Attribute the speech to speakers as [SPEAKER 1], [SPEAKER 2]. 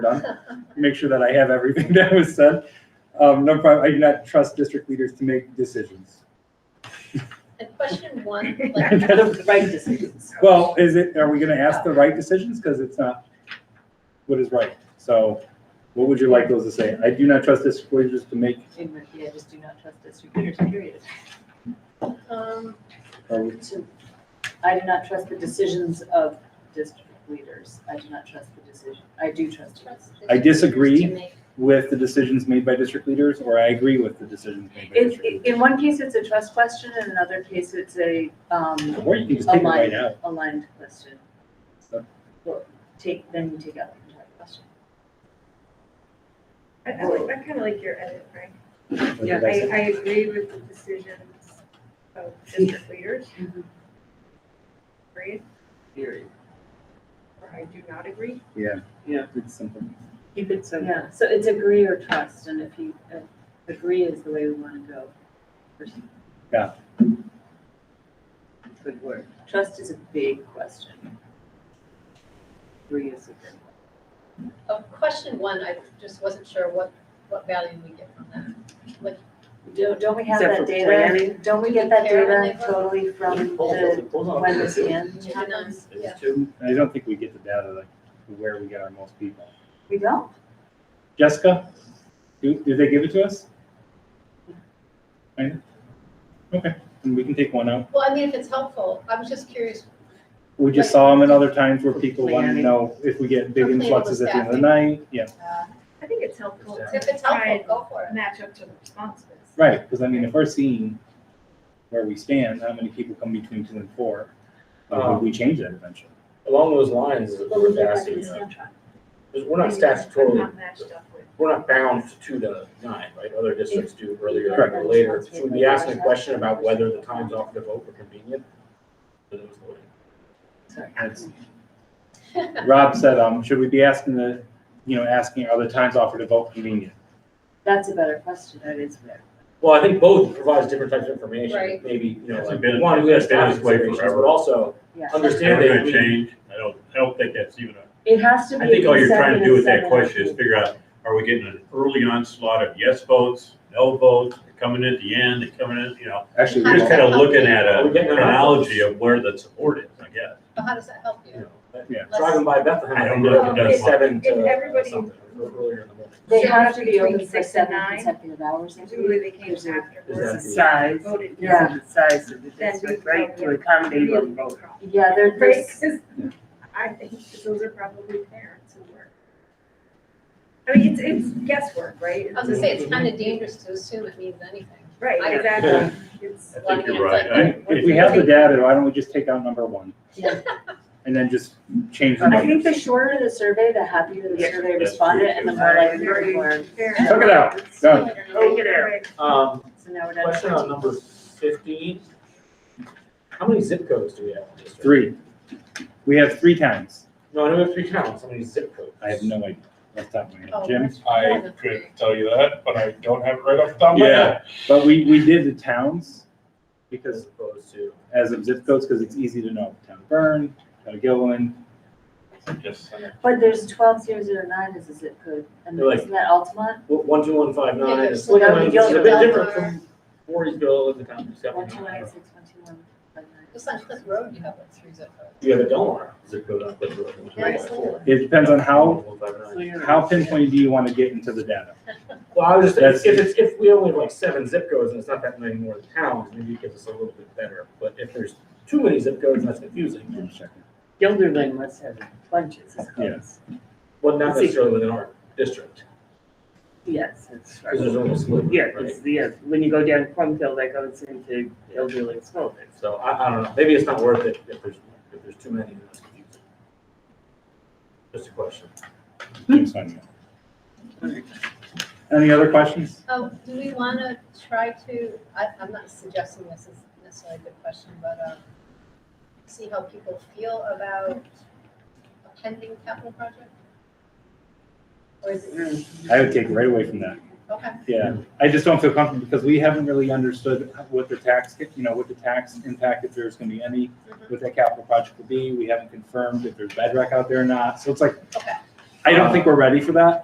[SPEAKER 1] done, make sure that I have everything that was said. Um, number five, I do not trust district leaders to make decisions.
[SPEAKER 2] And question one, like,
[SPEAKER 3] The right decisions.
[SPEAKER 1] Well, is it, are we gonna ask the right decisions? Because it's not what is right. So what would you like those to say? I do not trust district leaders to make,
[SPEAKER 3] And, Yeah, just do not trust district leaders, period.
[SPEAKER 2] um,
[SPEAKER 1] or
[SPEAKER 3] To- I do not trust the decisions of district leaders. I do not trust the decision, I do trust you.
[SPEAKER 2] trust
[SPEAKER 1] I
[SPEAKER 2] district
[SPEAKER 1] disagree.
[SPEAKER 2] leaders to make-
[SPEAKER 1] with the decisions made by district leaders, or I agree with the decisions made by
[SPEAKER 3] In,
[SPEAKER 1] district
[SPEAKER 3] in-
[SPEAKER 1] leaders.
[SPEAKER 3] in one case, it's a trust question, and in another case, it's a, um,
[SPEAKER 1] Or you can just take it right out.
[SPEAKER 3] aligned question.
[SPEAKER 1] So-
[SPEAKER 3] Well, Take, then you take out the entire question.
[SPEAKER 4] I, I like, I kind of like your edit, Frank.
[SPEAKER 1] What
[SPEAKER 3] Yeah.
[SPEAKER 1] did I
[SPEAKER 4] I,
[SPEAKER 1] say?
[SPEAKER 4] I agree with the decisions of district leaders.
[SPEAKER 3] Mhm.
[SPEAKER 4] Agreed,
[SPEAKER 5] Period.
[SPEAKER 4] or I do not agree.
[SPEAKER 1] Yeah.
[SPEAKER 5] Yeah.
[SPEAKER 1] It's simple.
[SPEAKER 5] Keep it simple.
[SPEAKER 3] Yeah, so it's agree or trust, and if you, uh, agree is the way we want to go.
[SPEAKER 5] Good word.
[SPEAKER 3] Trust is a big question. Agree is a big one.
[SPEAKER 2] Of Oh, question one, I just wasn't sure what, what value we get from that. Like,
[SPEAKER 3] Don't, don't we have
[SPEAKER 5] Except
[SPEAKER 3] that
[SPEAKER 5] for
[SPEAKER 3] data?
[SPEAKER 5] planning.
[SPEAKER 3] Don't we get that
[SPEAKER 2] Care when they
[SPEAKER 3] data
[SPEAKER 2] vote?
[SPEAKER 3] totally from the, when the scan
[SPEAKER 2] Yeah.
[SPEAKER 3] happens?
[SPEAKER 2] Yeah.
[SPEAKER 5] It's two.
[SPEAKER 1] I don't think we get the data like where we get our most people.
[SPEAKER 3] We don't?
[SPEAKER 1] Jessica, do, did they give it to us? Right? Okay, and we can take one out.
[SPEAKER 2] well, I mean, if it's helpful, I was just curious.
[SPEAKER 1] We just saw them at other times where people want to know if we get big
[SPEAKER 2] Planning.
[SPEAKER 1] influxes at the end of the night. Yeah,
[SPEAKER 2] uh,
[SPEAKER 4] I think it's helpful
[SPEAKER 2] If
[SPEAKER 4] to
[SPEAKER 2] it's helpful, go for it.
[SPEAKER 4] match up to the responses.
[SPEAKER 1] right, because I mean, if we're seeing where we stand, how many people come between two and four? Uh,
[SPEAKER 6] Um,
[SPEAKER 1] we change that eventually.
[SPEAKER 6] Along those lines,
[SPEAKER 3] Well,
[SPEAKER 6] we're
[SPEAKER 3] they're like
[SPEAKER 6] asking,
[SPEAKER 3] in
[SPEAKER 6] uh,
[SPEAKER 3] Scan Trunk.
[SPEAKER 6] because we're not
[SPEAKER 4] Maybe that's
[SPEAKER 6] statutorily,
[SPEAKER 4] Not matched up with.
[SPEAKER 6] we're not bound to two to nine, right? Other districts do earlier
[SPEAKER 1] Correct.
[SPEAKER 6] or later. Should we be asking a question about whether the times offered to vote were convenient? for those voting?
[SPEAKER 3] Sorry.
[SPEAKER 1] That's- Rob said, um, should we be asking the, you know, asking are the times offered to vote convenient?
[SPEAKER 3] That's a better question, that is better.
[SPEAKER 6] Well, I think both provides different types of information.
[SPEAKER 2] Right.
[SPEAKER 6] Maybe, you know,
[SPEAKER 7] It's
[SPEAKER 6] like,
[SPEAKER 7] been-
[SPEAKER 6] one, we have
[SPEAKER 7] it's been
[SPEAKER 6] staff
[SPEAKER 7] this way
[SPEAKER 6] considerations,
[SPEAKER 7] forever.
[SPEAKER 6] but also
[SPEAKER 3] Yeah.
[SPEAKER 6] understand
[SPEAKER 7] Never
[SPEAKER 6] that
[SPEAKER 7] gonna
[SPEAKER 6] we,
[SPEAKER 7] change. I don't, I don't think that's even a,
[SPEAKER 3] It has to be.
[SPEAKER 7] I think all you're trying to do with that
[SPEAKER 3] consecutive
[SPEAKER 7] question is
[SPEAKER 3] sentences.
[SPEAKER 7] figure out, are we getting an early onslaught of yes votes, no votes, they're coming in at the end, they're coming in, you know?
[SPEAKER 1] Actually,
[SPEAKER 7] You're
[SPEAKER 1] we
[SPEAKER 7] just
[SPEAKER 1] don't.
[SPEAKER 7] kind of looking at
[SPEAKER 6] Are we
[SPEAKER 7] a
[SPEAKER 6] getting enough
[SPEAKER 7] chronology
[SPEAKER 6] votes?
[SPEAKER 7] of where the support is, I guess.
[SPEAKER 2] But how does that help
[SPEAKER 6] you
[SPEAKER 2] you?
[SPEAKER 6] know, that-
[SPEAKER 1] Yeah.
[SPEAKER 6] driving by Bethlehem.
[SPEAKER 7] I don't
[SPEAKER 6] think
[SPEAKER 4] know if it
[SPEAKER 6] they're
[SPEAKER 4] does.
[SPEAKER 6] Seven to
[SPEAKER 4] If
[SPEAKER 6] uh,
[SPEAKER 4] everybody-
[SPEAKER 6] something, or earlier in the morning.
[SPEAKER 3] They
[SPEAKER 4] So
[SPEAKER 3] have to be
[SPEAKER 4] between
[SPEAKER 3] open for
[SPEAKER 4] six and
[SPEAKER 3] seven
[SPEAKER 4] nine?
[SPEAKER 3] consecutive hours. I
[SPEAKER 4] Presumably
[SPEAKER 3] believe.
[SPEAKER 4] they came
[SPEAKER 3] There's a-
[SPEAKER 4] afterwards.
[SPEAKER 6] Is
[SPEAKER 8] size, is
[SPEAKER 4] Voted.
[SPEAKER 3] Yeah.
[SPEAKER 8] the size of the
[SPEAKER 4] Then
[SPEAKER 8] district,
[SPEAKER 4] we-
[SPEAKER 8] right, to accommodate them both.
[SPEAKER 3] Yeah, there-
[SPEAKER 4] Right,
[SPEAKER 3] there's,
[SPEAKER 4] 'cause I think that those are probably parents who work. I mean, it's, it's guesswork, right?
[SPEAKER 2] I was gonna say, it's kind of dangerous to assume it means anything. I-
[SPEAKER 4] Right, exactly. It's,
[SPEAKER 7] I think you're right. I-
[SPEAKER 1] And If we have the data, why don't we just take out number one? And then just change the
[SPEAKER 3] I think the
[SPEAKER 1] numbers.
[SPEAKER 3] shorter the survey, the happier the
[SPEAKER 8] Yeah.
[SPEAKER 3] survey
[SPEAKER 7] That's
[SPEAKER 3] respondent,
[SPEAKER 7] true,
[SPEAKER 3] and the
[SPEAKER 7] too.
[SPEAKER 3] more likely
[SPEAKER 4] Very
[SPEAKER 3] to learn.
[SPEAKER 4] fair.
[SPEAKER 1] Took it out, done.
[SPEAKER 8] Take it out.
[SPEAKER 6] Um,
[SPEAKER 3] So now we're down to
[SPEAKER 6] Question on
[SPEAKER 3] 14.
[SPEAKER 6] number fifteen. How many zip codes do we have in the district?
[SPEAKER 1] Three. We have three times.
[SPEAKER 6] No, I know we have three towns, how many zip codes?
[SPEAKER 1] I have no idea. Off the top of my head.
[SPEAKER 2] Oh,
[SPEAKER 1] Jim?
[SPEAKER 2] I could
[SPEAKER 7] tell you that, but I don't have it right off the top
[SPEAKER 1] of my head. But we, we did the towns
[SPEAKER 6] As
[SPEAKER 1] because,
[SPEAKER 6] opposed to,
[SPEAKER 1] as of zip codes, because it's easy to know. Town of Burn, Town of Gilliland.
[SPEAKER 7] Yes.
[SPEAKER 3] But there's twelve zero zero nine is a zip code, and
[SPEAKER 6] They're like-
[SPEAKER 3] isn't that Altamont?
[SPEAKER 6] well, one, two, one, five, nine,
[SPEAKER 2] Maybe
[SPEAKER 6] it's
[SPEAKER 2] slow
[SPEAKER 6] like,
[SPEAKER 3] down
[SPEAKER 6] I mean,
[SPEAKER 3] the
[SPEAKER 6] it's a bit
[SPEAKER 3] yellow
[SPEAKER 6] different
[SPEAKER 2] bar.
[SPEAKER 6] from Voorheesville and the town of
[SPEAKER 3] One two
[SPEAKER 6] Scotland.
[SPEAKER 3] nine six one two one five nine.
[SPEAKER 2] Just on Cliff Road, you have like three zip codes.
[SPEAKER 6] You have a Delmar zip code on Cliff Road.
[SPEAKER 2] Yeah, it's
[SPEAKER 1] It depends on how,
[SPEAKER 6] One, five, nine.
[SPEAKER 1] how pinpointed do you want to get into the data?
[SPEAKER 6] Well, I was
[SPEAKER 1] That's-
[SPEAKER 6] just, if it's, if we only have like seven zip codes and it's not that many more towns, maybe it gives us a little bit better. But if there's too many zip codes, that's confusing.
[SPEAKER 1] One second.
[SPEAKER 8] Gilderlin must have bunches of
[SPEAKER 1] Yes.
[SPEAKER 8] kids.
[SPEAKER 6] Well, not
[SPEAKER 8] See.
[SPEAKER 6] necessarily within our district,
[SPEAKER 8] Yes, that's
[SPEAKER 6] because there's
[SPEAKER 8] right.
[SPEAKER 6] almost split,
[SPEAKER 8] Yeah,
[SPEAKER 6] right?
[SPEAKER 8] it's, yeah, when you go down Plumfield, that goes into Gilderlin School.
[SPEAKER 6] So I, I don't know, maybe it's not worth it if there's, if there's too many, that's confusing. Just a question.
[SPEAKER 1] Jim's finding it.
[SPEAKER 3] Hmm.
[SPEAKER 1] Any other questions?
[SPEAKER 2] Um, do we want to try to, I, I'm not suggesting this is necessarily a good question, but, um, see how people feel about a pending capital project? Or is it,
[SPEAKER 1] I would take right away from that.
[SPEAKER 2] okay,
[SPEAKER 1] Yeah, I just don't feel comfortable because we haven't really understood what the tax, you know, what the tax impact, if there's gonna be any,
[SPEAKER 2] Mhm.
[SPEAKER 1] what that capital project will be. We haven't confirmed if there's bedrock out there or not, so it's like,
[SPEAKER 2] okay.
[SPEAKER 1] I don't think we're ready for that.